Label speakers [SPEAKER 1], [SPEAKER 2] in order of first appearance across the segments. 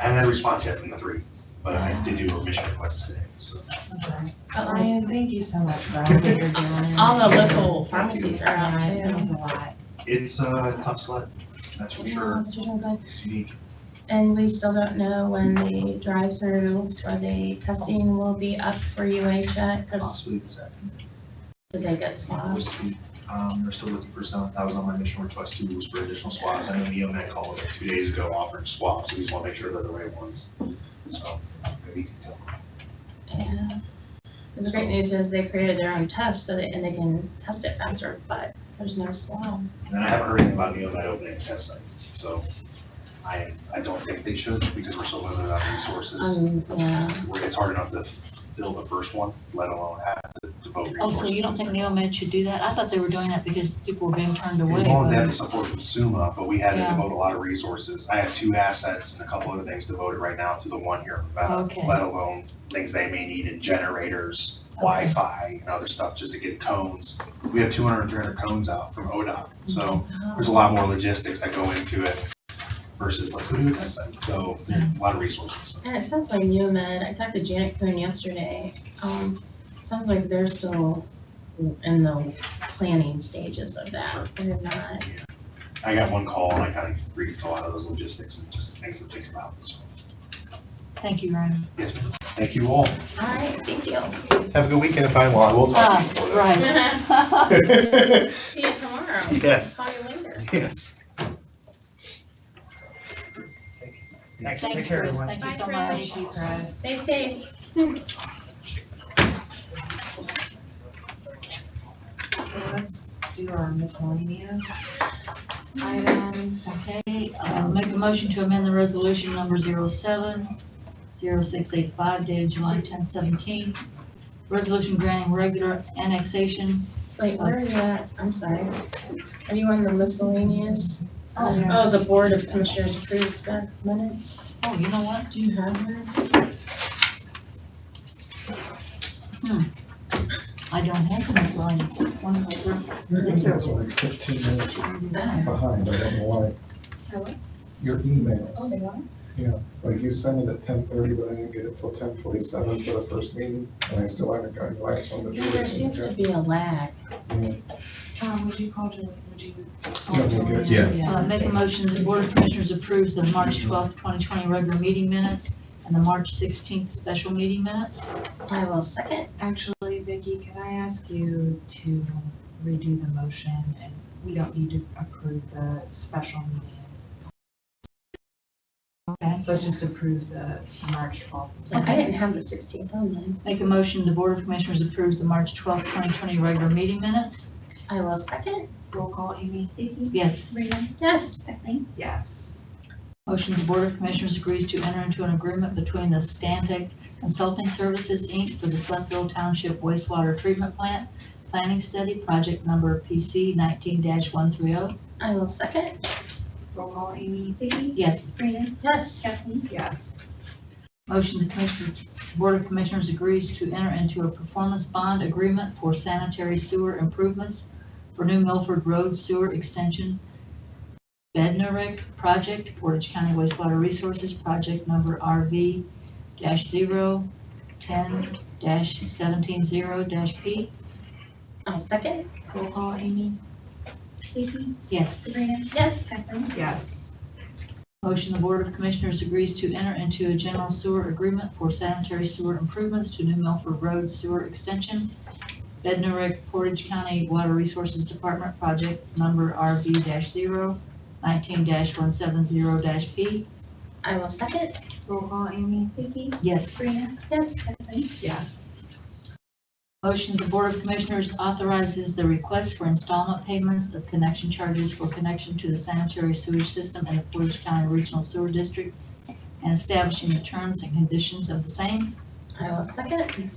[SPEAKER 1] I haven't had a response yet from the three, but I did do a mission request today, so.
[SPEAKER 2] Uh-oh.
[SPEAKER 3] Ryan, thank you so much for all that you're doing.
[SPEAKER 2] All the local pharmacies are out
[SPEAKER 3] Yeah, It was
[SPEAKER 2] too.
[SPEAKER 3] a lot.
[SPEAKER 1] It's a tough sled, that's for sure. It's unique.
[SPEAKER 2] And we still don't know when the drive-through or the testing will be up for UH yet, because
[SPEAKER 1] Possibly this afternoon.
[SPEAKER 2] did they get
[SPEAKER 1] We'll
[SPEAKER 2] swabbed?
[SPEAKER 1] see. Um, they're still looking for some, that was on my mission request too, was for additional swabs. I know Neo Med called like two days ago offering swabs, so we just want to make sure they're the right ones. So maybe you can tell.
[SPEAKER 2] Yeah. The great news is they created their own test so that, and they can test it faster, but there's no swab.
[SPEAKER 1] And then I haven't heard anything about Neo Med opening a test site, so I, I don't think they should because we're so limited on resources.
[SPEAKER 2] Um, yeah.
[SPEAKER 1] where it's hard enough to fill the first one, let alone have to devote
[SPEAKER 4] Oh,
[SPEAKER 1] resources.
[SPEAKER 4] so you don't
[SPEAKER 1] to
[SPEAKER 4] think
[SPEAKER 1] it.
[SPEAKER 4] Neomed should do that? I thought they were doing that because people were being turned away.
[SPEAKER 1] As long as they have the
[SPEAKER 4] but-
[SPEAKER 1] support from SUMA, but we had to
[SPEAKER 4] Yeah.
[SPEAKER 1] devote a lot of resources. I have two assets and a couple other things devoted right now to the one here in Nevada,
[SPEAKER 4] Okay.
[SPEAKER 1] let alone things they may need in generators, Wi-Fi, and other stuff, just to get cones. We have 200 and 300 cones out from ODOT, so there's a lot more logistics that go into it versus let's go do a test site. So there's a lot of resources.
[SPEAKER 2] And it sounds like UMed, I talked to Janet Kuhn yesterday, um, sounds like they're still in the planning stages of
[SPEAKER 1] Sure.
[SPEAKER 2] that. They're not,
[SPEAKER 1] I got one call and I kind of briefed a lot of those logistics and just things to think about, so.
[SPEAKER 4] Thank you, Ryan.
[SPEAKER 1] Yes, ma'am. Thank you all.
[SPEAKER 2] all right, thank you.
[SPEAKER 5] Have a good weekend if I'm on, we'll talk.
[SPEAKER 4] Ah,
[SPEAKER 5] before that.
[SPEAKER 4] right.
[SPEAKER 2] See you tomorrow.
[SPEAKER 5] Yes,
[SPEAKER 2] Call you later.
[SPEAKER 5] Ah. yes.
[SPEAKER 6] Thanks, take
[SPEAKER 4] Thanks,
[SPEAKER 6] care,
[SPEAKER 4] Chris.
[SPEAKER 6] everyone.
[SPEAKER 4] Thank you
[SPEAKER 2] Bye,
[SPEAKER 4] so much.
[SPEAKER 2] Chris.
[SPEAKER 3] Thank you, Chris.
[SPEAKER 2] Stay safe.
[SPEAKER 3] So let's do our miscellaneous items.
[SPEAKER 4] Okay, uh, make a motion to amend the resolution number 07-0685 dated July 10, 17. Resolution granting regular annexation.
[SPEAKER 2] Wait, where are you at? I'm sorry. Are you on the miscellaneous?
[SPEAKER 3] Oh, yeah.
[SPEAKER 2] Oh, the Board of Commissioners approves stuff minutes.
[SPEAKER 4] Oh, you know what?
[SPEAKER 2] Do you have minutes?
[SPEAKER 4] I don't have this line. It's one of my thir-
[SPEAKER 7] Your emails are like fifteen minutes behind, I don't know why. Your emails,
[SPEAKER 2] they are?
[SPEAKER 7] like you sent it at ten thirty, but I didn't get it till ten forty-seven for the first meeting, and I still haven't gotten the last one. that you
[SPEAKER 2] There seems to
[SPEAKER 7] sent.
[SPEAKER 2] be a lag.
[SPEAKER 7] Yeah.
[SPEAKER 3] Um, would you call Julie, would you? call
[SPEAKER 7] Yeah, we'll
[SPEAKER 3] Julie?
[SPEAKER 7] get-
[SPEAKER 5] Yeah.
[SPEAKER 4] Uh, Make a motion that the Board of Commissioners approves the March twelfth, 2020 regular meeting minutes and the March 16th special meeting minutes.
[SPEAKER 2] I will second.
[SPEAKER 3] Actually, Vicky, can I ask you to redo the motion and we don't need to approve the special meeting? Okay, so just approve the March twelfth.
[SPEAKER 2] I didn't have the sixteenth on mine.
[SPEAKER 4] Make a motion, the Board of Commissioners approves the March twelfth, 2020 regular meeting minutes.
[SPEAKER 2] I will second.
[SPEAKER 3] Roll call, Amy?
[SPEAKER 4] Yes.
[SPEAKER 2] Yes.
[SPEAKER 3] Yes.
[SPEAKER 4] Motion, the Board of Commissioners agrees to enter into an agreement between the Stantec Consulting Services, Inc. for the Slethville Township wastewater treatment plant planning study, project number PC 19-130.
[SPEAKER 2] I will second.
[SPEAKER 3] Roll call, Amy?
[SPEAKER 4] Yes.
[SPEAKER 2] Yes.
[SPEAKER 3] Yes.
[SPEAKER 4] Motion, the Commissioners, Board of Commissioners agrees to enter into a performance bond agreement for sanitary sewer improvements for New Milford Road Sewer Extension Bednarik Project, Portage County Wastewater Resources Project Number RV dash zero ten dash seventeen zero dash P.
[SPEAKER 2] I'll second.
[SPEAKER 3] Roll call, Amy?
[SPEAKER 4] Yes.
[SPEAKER 2] Yes.
[SPEAKER 3] Yes.
[SPEAKER 4] Motion, the Board of Commissioners agrees to enter into a general sewer agreement for sanitary sewer improvements to New Milford Road Sewer Extension, Bednarik Portage County Water Resources Department Project Number RV 19 one seven zero P.
[SPEAKER 2] I will second.
[SPEAKER 3] Roll call, Amy?
[SPEAKER 4] Yes.
[SPEAKER 2] Yes.
[SPEAKER 3] Yes.
[SPEAKER 4] Motion, the Board of Commissioners authorizes the request for installment payments of connection charges for connection to the sanitary sewage system in the Portage County Regional Sewer District and establishing the terms and conditions of the same.
[SPEAKER 2] I will second.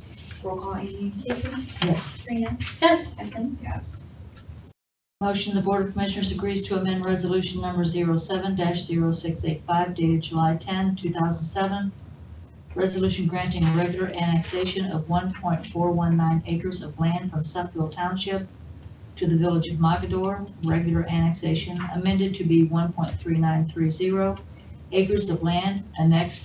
[SPEAKER 3] Roll call, Amy?
[SPEAKER 4] Yes.
[SPEAKER 2] Yes.
[SPEAKER 3] Yes.
[SPEAKER 4] Motion, the Board of Commissioners agrees to amend Resolution Number 07-0685 dated July 10, 2007. Resolution granting regular annexation of 1.419 acres of land from Suffield Township to the Village of Mogador. Regular annexation amended to be 1.3930 acres of land annexed